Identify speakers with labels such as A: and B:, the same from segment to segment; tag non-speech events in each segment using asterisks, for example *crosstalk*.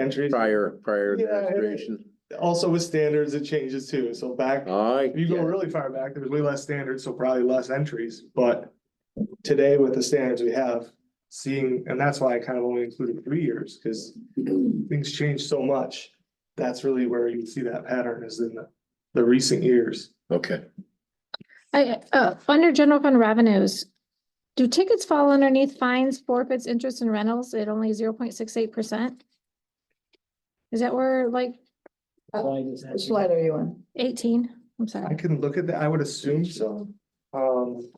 A: entries.
B: prior, prior
A: Yeah, and it-
B: administration.
A: Also with standards, it changes too. So back,
B: I,
A: if you go really far back, there was way less standards, so probably less entries, but today with the standards we have, seeing, and that's why I kind of only included three years, because things change so much. That's really where you see that pattern is in the, the recent years.
B: okay.
C: I, uh, under general fund revenues, do tickets fall underneath fines, forfeits, interest and rentals at only zero point six eight percent? Is that where like
D: Which slide are you on?
C: eighteen? I'm
A: I
C: sorry.
A: can look at that, I would assume so. Um.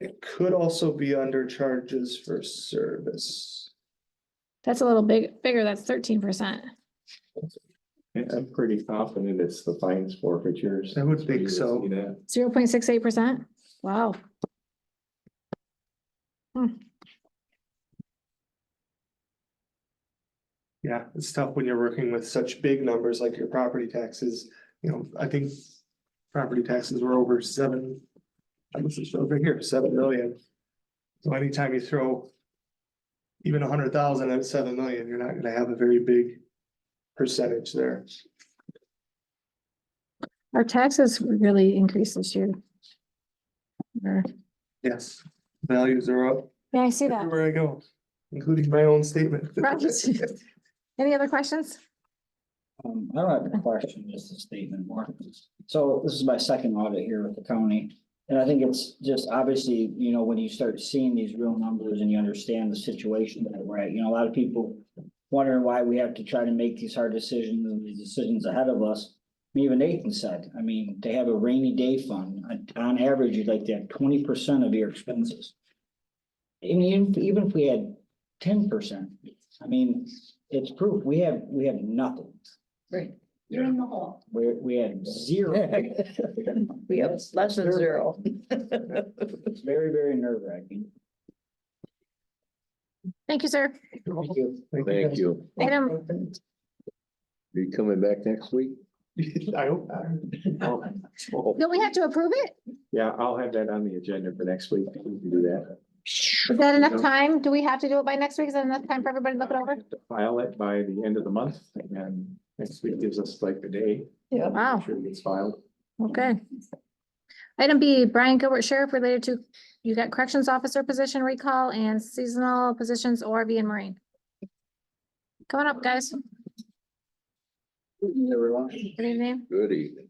A: It could also be under charges for service.
C: That's a little big, bigger. That's thirteen percent.
E: I'm pretty confident it's the fines forfeitures.
A: I would think so.
E: You know,
C: Zero point six eight percent? Wow.
A: Yeah, it's tough when you're working with such big numbers like your property taxes, you know, I think. Property taxes were over seven. I guess it's over here, seven million. So anytime you throw. Even a hundred thousand at seven million, you're not gonna have a very big percentage there.
C: Our taxes really increased this year. Or-
A: Yes, values are up
C: Yeah, I see that.
A: everywhere I go, including my own statement. *laughs*
C: *laughs* Right. Any other questions?
F: Um, I don't have a question, just a statement more. So this is my second audit here with the county. And I think it's just obviously, you know, when you start seeing these real numbers and you understand the situation that we're at, you know, a lot of people wondering why we have to try to make these hard decisions and these decisions ahead of us. Even Nathan said, I mean, they have a rainy day fund. On- On average, you'd like to have twenty percent of your expenses. And even, even if we had ten percent, I mean, it's proof, we have, we have nothing.
D: Right.
F: You're in the hole. We're, we had zero.
D: *laughs* We have less than zero.
F: It's very, very nerve wracking.
C: Thank you, sir.
F: Thank you.
B: Thank you.
C: Item,
B: Are you coming back next week?
A: I hope, not.
C: don't we have to approve it?
E: Oh, yeah, I'll have that on the agenda for next week. We can do that.
C: Is that enough time? Do we have to do it by next week? Is that enough time for everybody to look it over?
E: File it by the end of the month and next week gives us like the day.
D: Yeah.
C: Wow,
E: Sure it's filed.
C: okay. Item B, Brian Gilbert Sheriff related to, you got corrections officer position recall and seasonal positions ORV and marine. Coming up, guys.
F: Everyone.
C: Good evening.
B: Good evening.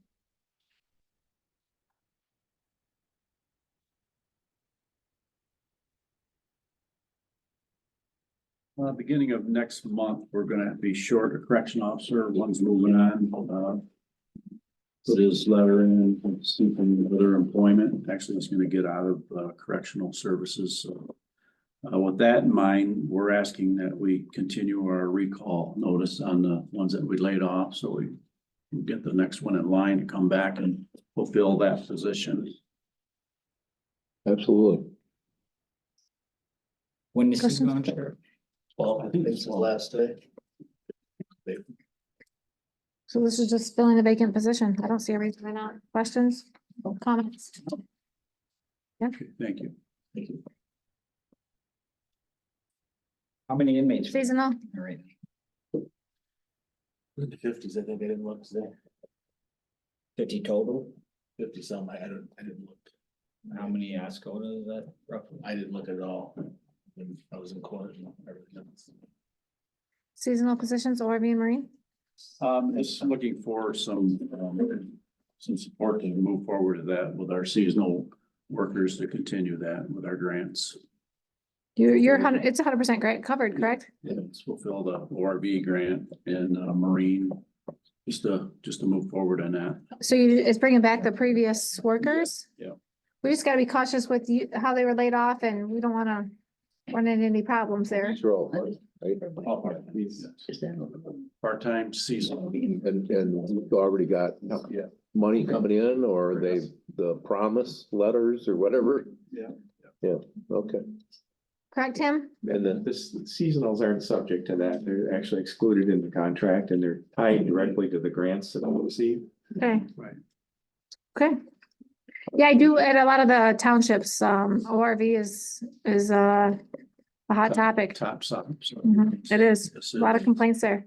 G: Uh, beginning of next month, we're gonna be short a correction officer, one's moving on, uh. Put his letter in, seeking other employment, actually he's gonna get out of uh, correctional services, so. Uh, with that in mind, we're asking that we continue our recall notice on the ones that we laid off, so we. can Get the next one in line to come back and fulfill that position.
B: Absolutely.
F: When is this
C: Question?
F: going to? Well, I think it's the last day.
C: So this is just filling the vacant position. I don't see a reason why not. Questions, comments?
G: Okay, Thank you.
F: How many inmates?
C: Seasonal,
F: All right.
H: In the fifties, I think I didn't look today,
F: Fifty total?
H: fifty some, I I don't, I didn't look,
F: How many Ascota is that roughly?
H: I didn't look at it all. when I was in court and everything else.
C: seasonal positions ORV and marine?
G: Um, just looking for some, um, some support to move forward to that with our seasonal workers to continue that with our grants.
C: You're, you're, hun- it's hundred percent great, covered, correct?
G: Let's fulfill the ORV grant and uh, Marine, just to, just to move forward on that.
C: So you, it's bringing back the previous workers?
G: yeah.
C: We just gotta be cautious with you, how they were laid off and we don't wanna run into any problems there.
B: These are all part-
G: All part of these. Part-time seasonal.
B: And, and we already got
G: Yeah.
B: money coming in or they, the promise letters or whatever?
G: Yeah.
B: Yeah, okay.
C: Correct, Tim?
B: And then,
E: This seasonals aren't subject to that. They're actually excluded in the contract and they're tied directly to the grants that we'll receive.
C: Okay.
G: Right.
C: Okay. Yeah, I do, at a lot of the townships, um, ORV is, is, uh,
G: a hot topic.
C: top side. so-
G: Mhm, It is,
C: Yes,
G: a
C: sir.
G: Mm-hmm. lot of complaints there.